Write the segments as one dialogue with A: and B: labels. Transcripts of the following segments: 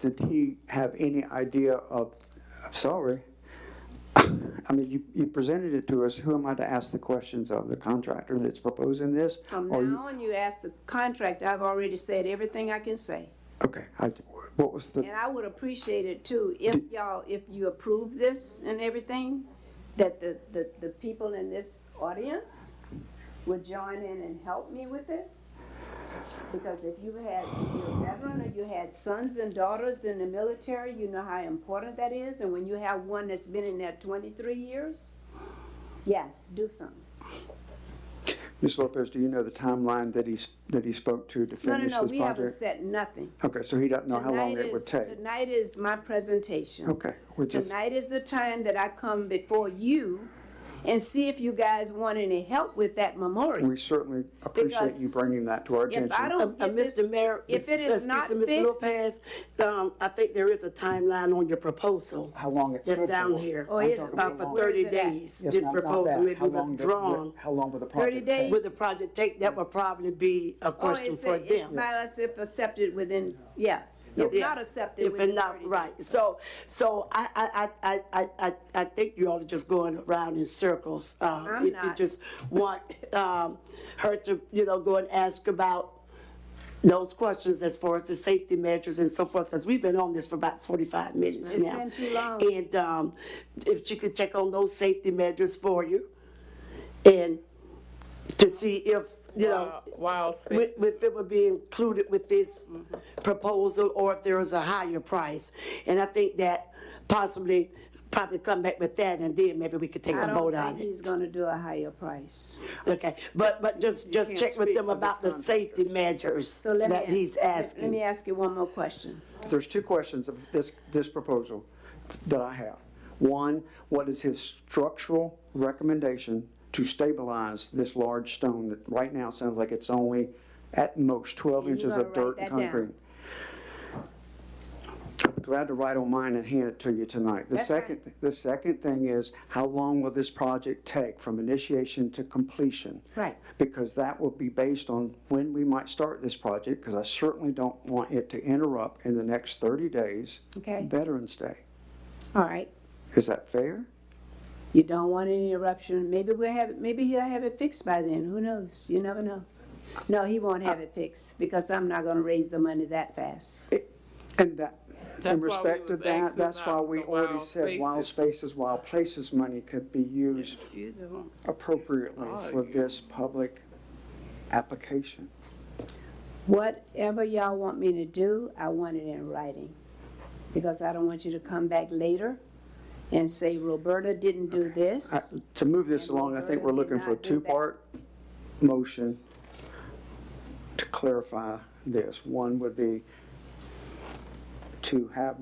A: Did he have any idea of, I'm sorry, I mean, you, you presented it to us, who am I to ask the questions of, the contractor that's proposing this?
B: From
A: Or you-
B: now on, you ask the contractor, I've already said everything I can say.
A: Okay, I, what was the,
B: And I would appreciate it too, if y'all, if you approve this and everything, that the, the, the people in this audience would join in and help me with this. Because if you had, if you're a veteran or you had sons and daughters in the military, you know how important that is. And when you have one that's been in there twenty-three years, yes, do something.
A: Ms. Lopez, do you know the timeline that he's, that he spoke to to
B: No, no,
A: finish
B: no,
A: this
B: we haven't
A: project?
B: said nothing.
A: Okay, so he doesn't know how long
B: Tonight
A: it would
B: is-
A: take?
B: Tonight is my presentation.
A: Okay, we're just,
B: Tonight is the time that I come before you and see if you guys want any help with that memorial.
A: we certainly appreciate
B: Because
A: you bringing that to our attention.
B: If I
C: Uh,
B: don't
C: uh,
B: get this,
C: Mr. Mayor.
B: if it is
C: excuse
B: not
C: me, Ms.
B: fixed-
C: Lopez, um, I think there is a timeline on your proposal.
D: How long it
C: That's
D: took
C: down
D: for-
C: here.
B: Oh, is it?
C: About for
B: Where is
C: thirty
B: it at?
C: days.
D: Yes,
C: This
D: ma'am, not
C: proposal
D: that.
C: may
D: How
C: be
D: long did-
C: withdrawn.
D: How long will the
B: 30
D: project
B: days.
D: take?
C: With the project take, that would probably be a
B: oh,
C: question
B: it's,
C: for
B: it's
C: them.
B: by us if accepted within, yeah, if
C: Yeah.
B: not accepted
C: If it's
B: within
C: not,
B: thirty.
C: right. So, so I, I, I, I, I, I think you all are just going around in circles. Um,
B: I'm
C: If you
B: not.
C: just want, um, her to, you know, go and ask about those questions as far as the safety measures and so forth, because we've been on this for about forty-five minutes now.
B: been too long.
C: And, um, if you could check on those safety measures for you and to see if, you know,
E: Wild
C: with, with it would be included with this proposal or if there is a higher price. And I think that possibly, probably come back with that and then maybe we could take
B: I
C: a
B: don't
C: vote on
B: think
C: it.
B: he's gonna do a higher price.
C: Okay, but, but just, just check with them about the safety measures
B: So let me.
C: that he's
B: ask- let- Let me
C: asking.
B: ask you one more question.
A: There's two questions of this, this proposal that I have. One, what is his structural recommendation to stabilize this large stone that right now sounds like it's only at most twelve
B: And you
A: inches
B: gotta
A: of dirt
B: write
A: and
B: that down.
A: concrete? I'm Glad to write on mine and hand it to you tonight. The
B: That's fine.
A: second, the second thing is, how long will this project take from initiation to completion?
B: Right.
A: because that will be based on when we might start this project, because I certainly don't want it to interrupt in the next thirty days.
B: Okay.
A: Veterans Day.
B: All right,
A: Is that fair?
B: you don't want any eruption, maybe we'll have, it. maybe he'll have it fixed by then, who knows, you never know. No, he won't have it fixed, because I'm not gonna raise the money that fast.
A: And that,
E: That's
A: in
E: why we
A: respect of
E: was
A: that,
E: asking
A: that's why
E: about
A: we
E: the
A: already
E: wild
A: said wild spaces, wild places money could be used appropriately
E: Oh,
A: for this public application.
B: Whatever y'all want me to do, I want it in writing. Because I don't want you to come back later and say Roberta didn't do this.
A: I- Uh, To move this along, I think we're looking for a two-part motion to clarify this. One would be to have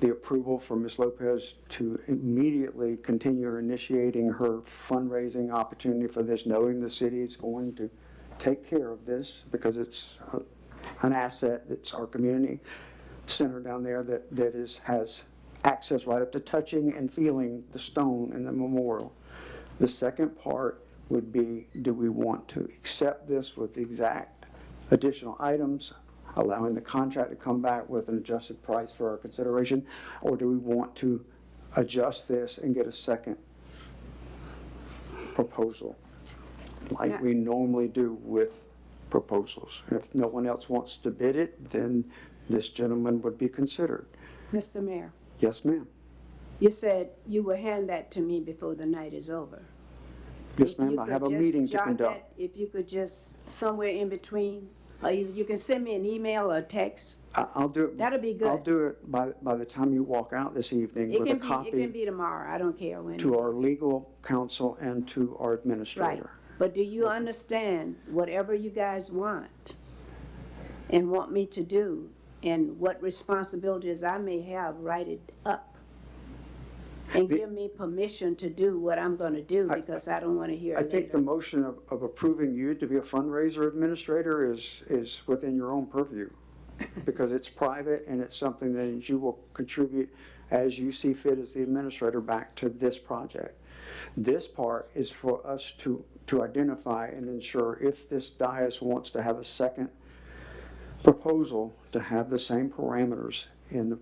A: the approval for Ms. Lopez to immediately continue initiating her fundraising opportunity for this, knowing the city is going to take care of this because it's uh, an asset that's our community center down there that, that is, has access right up to touching and feeling the stone and the memorial. The second part would be, do we want to accept this with the exact additional items, allowing the contract to come back with an adjusted price for our consideration? Or do we want to adjust this and get a second proposal? Like we normally do with proposals. If no one else wants to bid it, then this gentleman would be considered.
B: Mr. Mayor,
A: Yes, ma'am.
B: you said you will hand that to me before the night is over.
A: Yes,
B: If you
A: ma'am, I
B: could
A: have a
B: just
A: meeting to
B: jot
A: conduct.
B: that- If you could just, somewhere in between, or you, you can send me an email or a text.
A: I- I'll do it.
B: That'll be
A: I'll
B: good.
A: do it by, by the time you walk out this evening
B: It
A: with a
B: can be, it can
A: copy
B: be tomorrow, I don't care when.
A: to our legal counsel and to our
B: Right,
A: administrator.
B: but do you understand whatever you guys want and want me to do, and what responsibilities I may have, write it up? And
A: The-
B: give me permission to do what I'm gonna do, because I don't wanna hear
A: I
B: it
A: think the
B: later.
A: motion of, of approving you to be a fundraiser administrator is, is within your own purview. Because it's private and it's something that you will contribute as you see fit as the administrator back to this project. This part is for us to, to identify and ensure if this dais wants to have a second proposal to have the same parameters in the